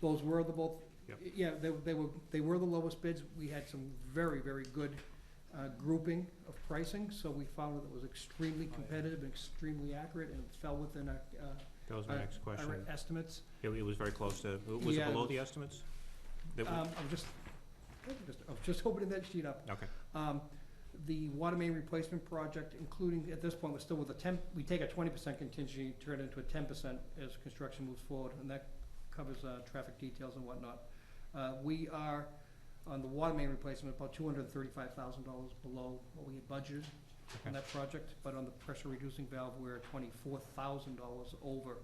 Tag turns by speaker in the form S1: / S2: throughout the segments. S1: Those were the both,
S2: Yep.
S1: yeah, they, they were, they were the lowest bids. We had some very, very good uh, grouping of pricing, so we found that it was extremely
S2: Oh,
S3: yeah.
S1: competitive and extremely accurate and fell within our, uh,
S2: That was my
S1: Uh,
S2: next
S1: our
S2: question.
S1: estimates.
S2: It it was very close to, was it
S1: Yeah, it
S2: below
S1: was-
S2: the estimates? That we-
S1: Um, I'm just, just- I'm just opening that sheet up.
S2: Okay,
S1: Um, The water main replacement project, including, at this point, we're still with a ten, we take a twenty percent contingency, turn it into a ten percent as construction moves forward, and that covers, uh, traffic details and whatnot. Uh, we are, on the water main replacement, about two hundred and thirty-five thousand dollars below what we had budgeted on
S2: okay,
S1: that project, but on the pressure reducing valve, we're twenty-four thousand dollars over,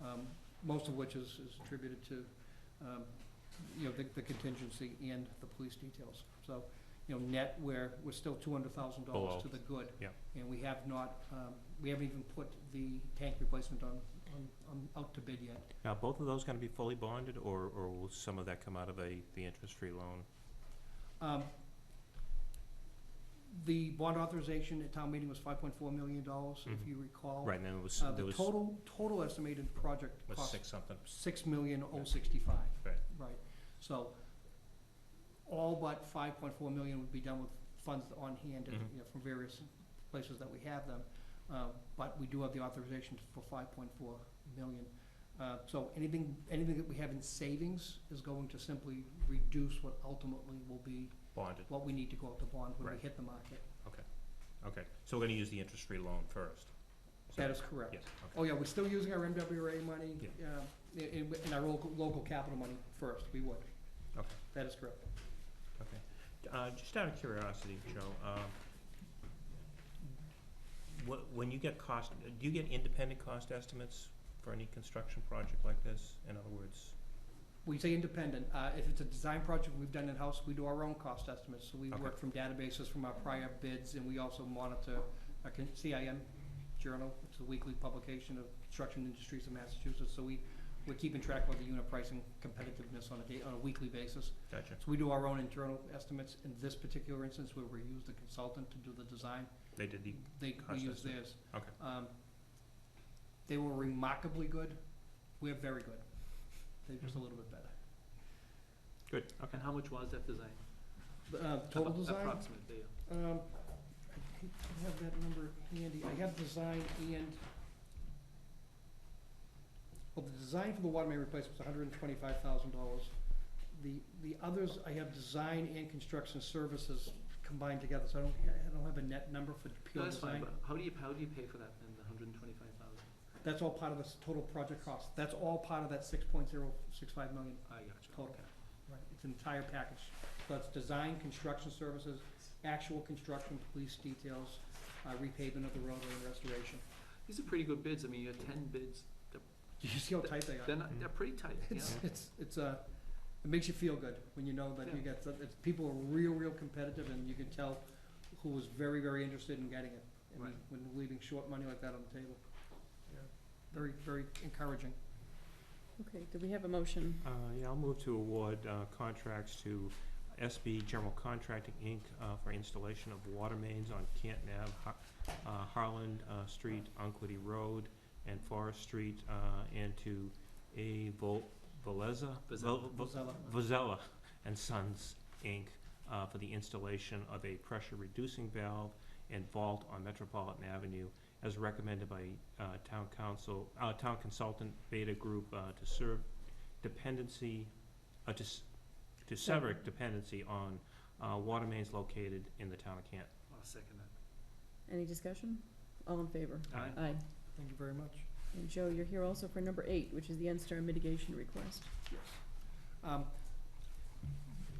S1: um, most of which is, is attributed to, um, you know, the, the contingency and the police details. So, you know, net, we're, we're still two hundred thousand
S2: Below.
S1: dollars to the good.
S2: Yeah.
S1: And we have not, um, we haven't even put the tank replacement on, on, on, out to bid yet.
S2: now, both of those gonna be fully bonded, or, or will some of that come out of a, the interest-free loan?
S1: Um, The bond authorization at town meeting was five point four million dollars, if
S2: Mhm.
S1: you recall.
S2: Right, and then it was,
S1: Uh,
S2: there
S1: the
S2: was,
S1: total, total estimated project
S2: was
S1: cost,
S2: six something,
S1: six million oh sixty-five.
S2: Right.
S1: Right, so all but five point four million would be done with funds on hand, and,
S2: Mhm.
S1: you know, from various places that we have them. Uh, but we do have the authorization for five point four million. Uh, so anything, anything that we have in savings is going to simply reduce what ultimately will be
S2: bonded,
S1: what we need to go out to bond when we
S2: Right.
S1: hit the market.
S2: okay, so we're gonna use the interest-free loan first? So-
S1: That is correct.
S2: Yes, okay,
S1: Oh, yeah, we're still using our MWRA money,
S2: Yeah.
S1: uh, i- in, in our local, local capital money first, we would.
S2: Okay.
S1: That is correct.
S2: okay. Uh, just out of curiosity, Joe, um, wh- when you get cost, do you get independent cost estimates for any construction project like this? In other words,
S1: We say independent, uh, if it's a design project we've done in-house, we do our own cost estimates, so we
S2: Okay.
S1: work from databases from our prior bids, and we also monitor our con- CIM journal, which is a weekly publication of construction industries in Massachusetts, so we, we're keeping track of the unit pricing competitiveness on a day, on a weekly basis.
S2: gotcha,
S1: So we do our own internal estimates, in this particular instance, where we use the consultant to do the design,
S2: they did the,
S1: they, we
S2: Cost
S1: use
S2: estimate.
S1: theirs.
S2: Okay.
S1: Um, they were remarkably good, we're very good, they're just a little bit better.
S2: good, okay.
S3: And how much was that design?
S1: Uh, total
S3: Appro-
S1: design,
S3: Approximate, yeah.
S1: um, I hate to have that number handy, I have design and, well, the design for the water main replacement was hundred and twenty-five thousand dollars. The, the others, I have design and construction services combined together, so I don't, I don't have a net number for
S3: No,
S1: pure
S3: that's
S1: design.
S3: fine, but how do you, how do you pay for that then, the hundred and twenty-five thousand?
S1: That's all part of this total project cost, that's all part of that six point zero six five million
S3: I gotcha.
S1: Total.
S3: Okay.
S1: Right, it's an entire package. So it's design, construction services, actual construction, police details, uh, repaving of the roadway and restoration.
S3: These are pretty good bids, I mean, you had ten bids,
S1: Do you see how tight they
S3: they're
S1: are?
S3: not, they're pretty tight, yeah.
S1: It's, it's, it's uh it makes you feel good when you know that you
S3: Yeah.
S1: get, some- it's, people are real, real competitive and you can tell who was very, very interested in getting it. and
S3: Right.
S1: When leaving short money like that on the table. Very, very encouraging.
S4: Okay, do we have a motion?
S2: Uh, yeah, I'll move to award, uh, contracts to SB General Contracting, Inc., uh, for installation of water mains on Canton Ave, Har- uh, Harland, uh, Street, Unquity Road, and Forest Street, uh, and to A. Vol- Veleza?
S3: Vazella.
S2: Vel-
S1: Vazella.
S2: Vazella and Sons, Inc., uh, for the installation of a pressure-reducing valve and vault on Metropolitan Avenue, as recommended by, uh, town council, uh, town consultant Beta Group, uh, to serve dependency, uh, to, s- to sever dependency on, uh, water mains located in the town of Canton.
S3: I'll second that.
S4: Any discussion? All in favor?
S2: Aye.
S4: Aye.
S1: Thank you very much.
S4: And Joe, you're here also for number eight, which is the NSTAR mitigation request.
S1: Yes. Um,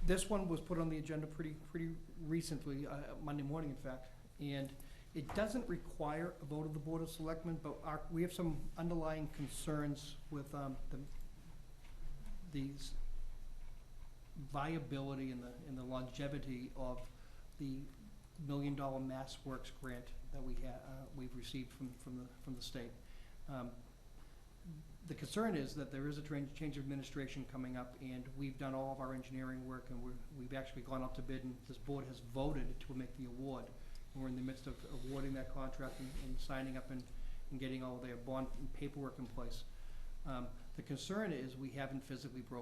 S1: This one was put on the agenda pretty, pretty recently, uh, Monday morning, in fact, and it doesn't require a vote of the Board of Selectmen, but our, we have some underlying concerns with um, the, these viability and the, and the longevity of the Million Dollar Mass Works grant that we ha, uh, we've received from, from the, from the state. Um, the concern is that there is a tran- change of administration coming up, and we've done all of our engineering work, and we're, we've actually gone up to bid, and this board has voted to make the award. And We're in the midst of awarding that contract and, and signing up and, and getting all their bond and paperwork in place. Um, the concern is we haven't physically broken